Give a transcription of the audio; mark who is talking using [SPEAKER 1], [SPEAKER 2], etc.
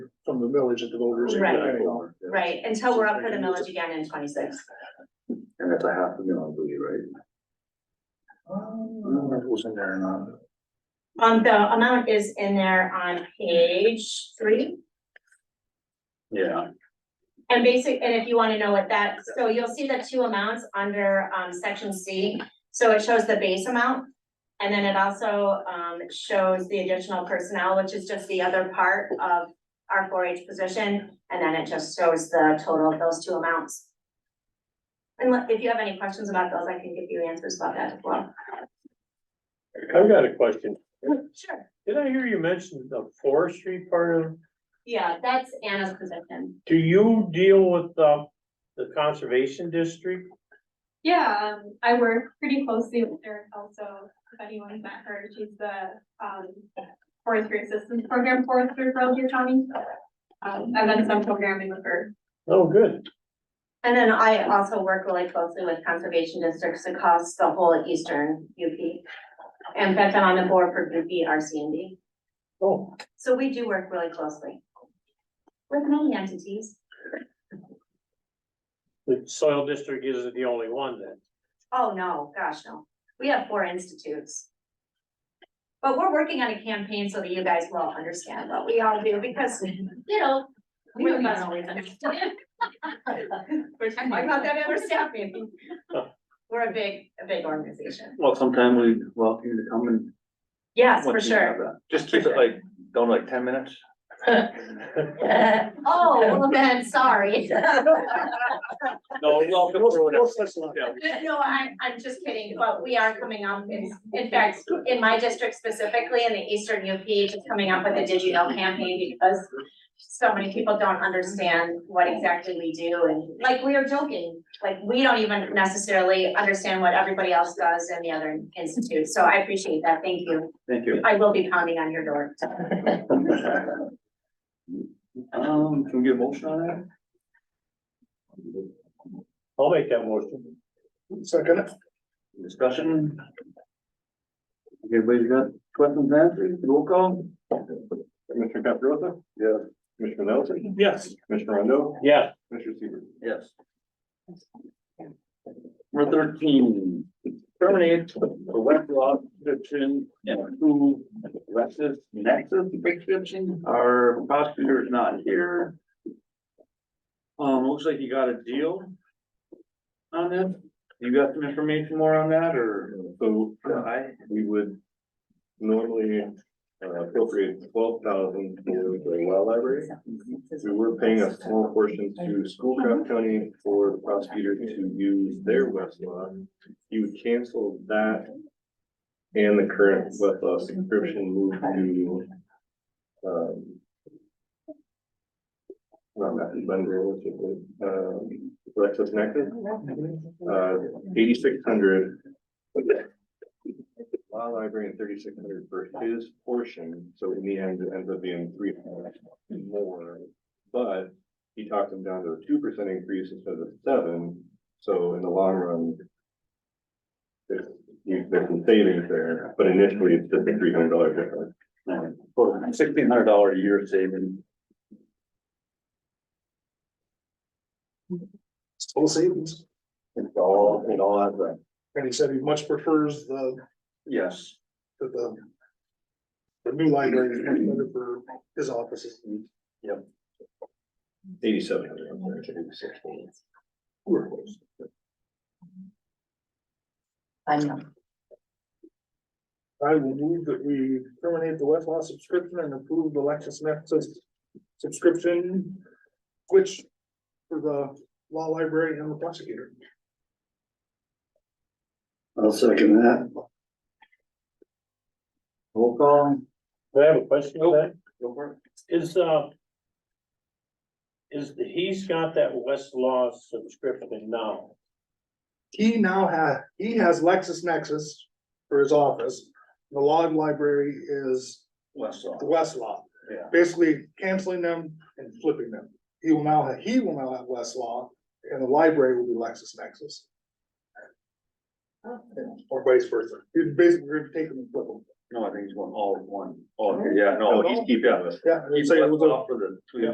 [SPEAKER 1] the millage that the voters are
[SPEAKER 2] Right.
[SPEAKER 1] planning on.
[SPEAKER 2] right, until we're up for the millage again in twenty-six.
[SPEAKER 3] And that's a half a million, I believe, right?
[SPEAKER 1] I don't know if it was in there or not.
[SPEAKER 2] Um, the amount is in there on page three.
[SPEAKER 3] Yeah.
[SPEAKER 2] And basic, and if you wanna know what that, so you'll see the two amounts under um section C, so it shows the base amount. And then it also um shows the additional personnel, which is just the other part of our four H position, and then it just shows the total of those two amounts. And let- if you have any questions about those, I can give you answers about that as well.
[SPEAKER 4] I've got a question.
[SPEAKER 2] Sure.
[SPEAKER 4] Did I hear you mention the forestry part of,
[SPEAKER 2] Yeah, that's Anna's position.
[SPEAKER 4] do you deal with the, the conservation district?
[SPEAKER 5] Yeah, um, I work pretty closely with her also, if anyone's met her, she's the, um, forestry assistance program forester for Elgin County. Um, I've done some programming with her.
[SPEAKER 4] Oh, good.
[SPEAKER 2] And then I also work really closely with conservation districts across the whole eastern UP. And in fact, I'm on the board for UP RCND.
[SPEAKER 4] Oh,
[SPEAKER 2] So we do work really closely with many entities.
[SPEAKER 4] the soil district isn't the only one then.
[SPEAKER 2] Oh, no, gosh, no. We have four institutes. But we're working on a campaign so that you guys will understand what we all do because, you know, we don't always understand. We're talking about that at our staff meeting. We're a big, a big organization.
[SPEAKER 3] Well, sometime we welcome you to come and.
[SPEAKER 2] Yes, for
[SPEAKER 3] once you have
[SPEAKER 2] sure.
[SPEAKER 3] that. Just keep it like, don't like ten minutes.
[SPEAKER 2] Oh, well then, sorry.
[SPEAKER 3] No, welcome.
[SPEAKER 2] No, I, I'm just kidding, but we are coming up, in, in fact, in my district specifically, in the eastern UP, just coming up with a Did You Know campaign because so many people don't understand what exactly we do and like we are joking, like we don't even necessarily understand what everybody else does in the other institute. So I appreciate that. Thank you.
[SPEAKER 3] Thank you.
[SPEAKER 2] I will be pounding on your door.
[SPEAKER 3] Um, can we get a motion on
[SPEAKER 4] I'll make that motion.
[SPEAKER 1] Second,
[SPEAKER 3] that? Discussion? Everybody's got questions answered, roll call?
[SPEAKER 6] Commissioner Caprosa? Yes. Commissioner Nelson?
[SPEAKER 4] Yes.
[SPEAKER 6] Commissioner Rondo?
[SPEAKER 4] Yeah,
[SPEAKER 6] Commissioner Seaver?
[SPEAKER 3] Yes. Number thirteen, terminate the web law description and approve Rex's nexus prescription. Our prosecutor is not here. Um, looks like you got a deal on this. You got some information more on that or?
[SPEAKER 6] So
[SPEAKER 3] I,
[SPEAKER 6] we would normally uh, appropriate twelve thousand for the well library. We were paying a small portion to Schoolcraft County for the prosecutor to use their Westlaw. You would cancel that and the current Westlaw subscription move to um not Matthew Bender, what's it, called? um, Lexus Nexus. uh, eighty-six hundred. Law library and thirty-six hundred for his portion, so in the end, it ends up being three hundred more. But he talked him down to a two percent increase instead of seven, so in the long run. There's, you- there's some savings there, but initially it's just a three hundred dollar difference.
[SPEAKER 3] sixteen hundred dollar a year saving.
[SPEAKER 1] full savings,
[SPEAKER 6] It's all, it all adds up.
[SPEAKER 1] and he said he much prefers the,
[SPEAKER 3] Yes.
[SPEAKER 1] the, the. The new library is much better for his offices.
[SPEAKER 6] Eighty-seven hundred. We're close.
[SPEAKER 7] I know.
[SPEAKER 1] I will move that we terminate the Westlaw subscription and approve the Lexus Nexus subscription. Which for the law library and the prosecutor.
[SPEAKER 3] I'll second that. Roll call.
[SPEAKER 4] Do I have a question for that.
[SPEAKER 3] Go for it.
[SPEAKER 4] Is, uh, is, the- he's got that Westlaw subscription now.
[SPEAKER 1] He now ha- he has Lexus Nexus for his office. The law library is the
[SPEAKER 3] Westlaw.
[SPEAKER 1] Westlaw.
[SPEAKER 3] Yeah.
[SPEAKER 1] Basically canceling them and flipping them. He will now, ha- he will now have Westlaw and the library will be Lexus Nexus.
[SPEAKER 3] Oh.
[SPEAKER 1] Or vice versa. He's basically going to take them and flip them.
[SPEAKER 3] No, I think he's going all one. Oh, yeah, no, he's keep, yeah,
[SPEAKER 1] Yeah. and
[SPEAKER 3] he's
[SPEAKER 1] say it was a-
[SPEAKER 3] Westlaw for the two